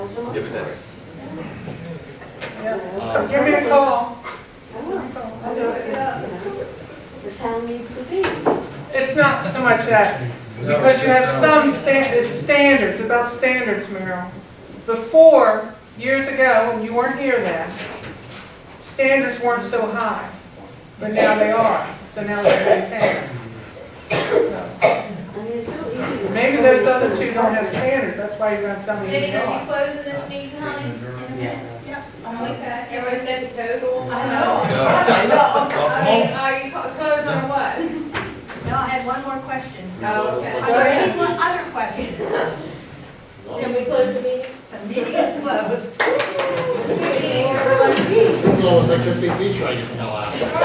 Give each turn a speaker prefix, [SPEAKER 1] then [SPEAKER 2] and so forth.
[SPEAKER 1] Yeah, but that's,
[SPEAKER 2] So give me a call.
[SPEAKER 3] I'll do it. The town needs the fees.
[SPEAKER 2] It's not so much that, because you have some stand, it's standards, about standards, Meryl. Before, years ago, and you weren't here then, standards weren't so high, but now they are, so now they're maintained. So,
[SPEAKER 3] I mean, it's real easy. to-
[SPEAKER 2] Maybe those other two don't have standards, that's why you're gonna tell me
[SPEAKER 4] Jane,
[SPEAKER 2] they
[SPEAKER 4] are you
[SPEAKER 2] are.
[SPEAKER 4] closing this meeting, honey? Okay, everybody's got the code.
[SPEAKER 5] I know.
[SPEAKER 4] I mean, are you clo- closed or what?
[SPEAKER 5] No, I had one more question.
[SPEAKER 4] Oh,
[SPEAKER 5] Are
[SPEAKER 4] okay.
[SPEAKER 5] there any more other questions?
[SPEAKER 4] Can we close the meeting?
[SPEAKER 5] The meeting is closed.
[SPEAKER 4] Meeting, everyone.
[SPEAKER 6] It's almost like a big beach right now.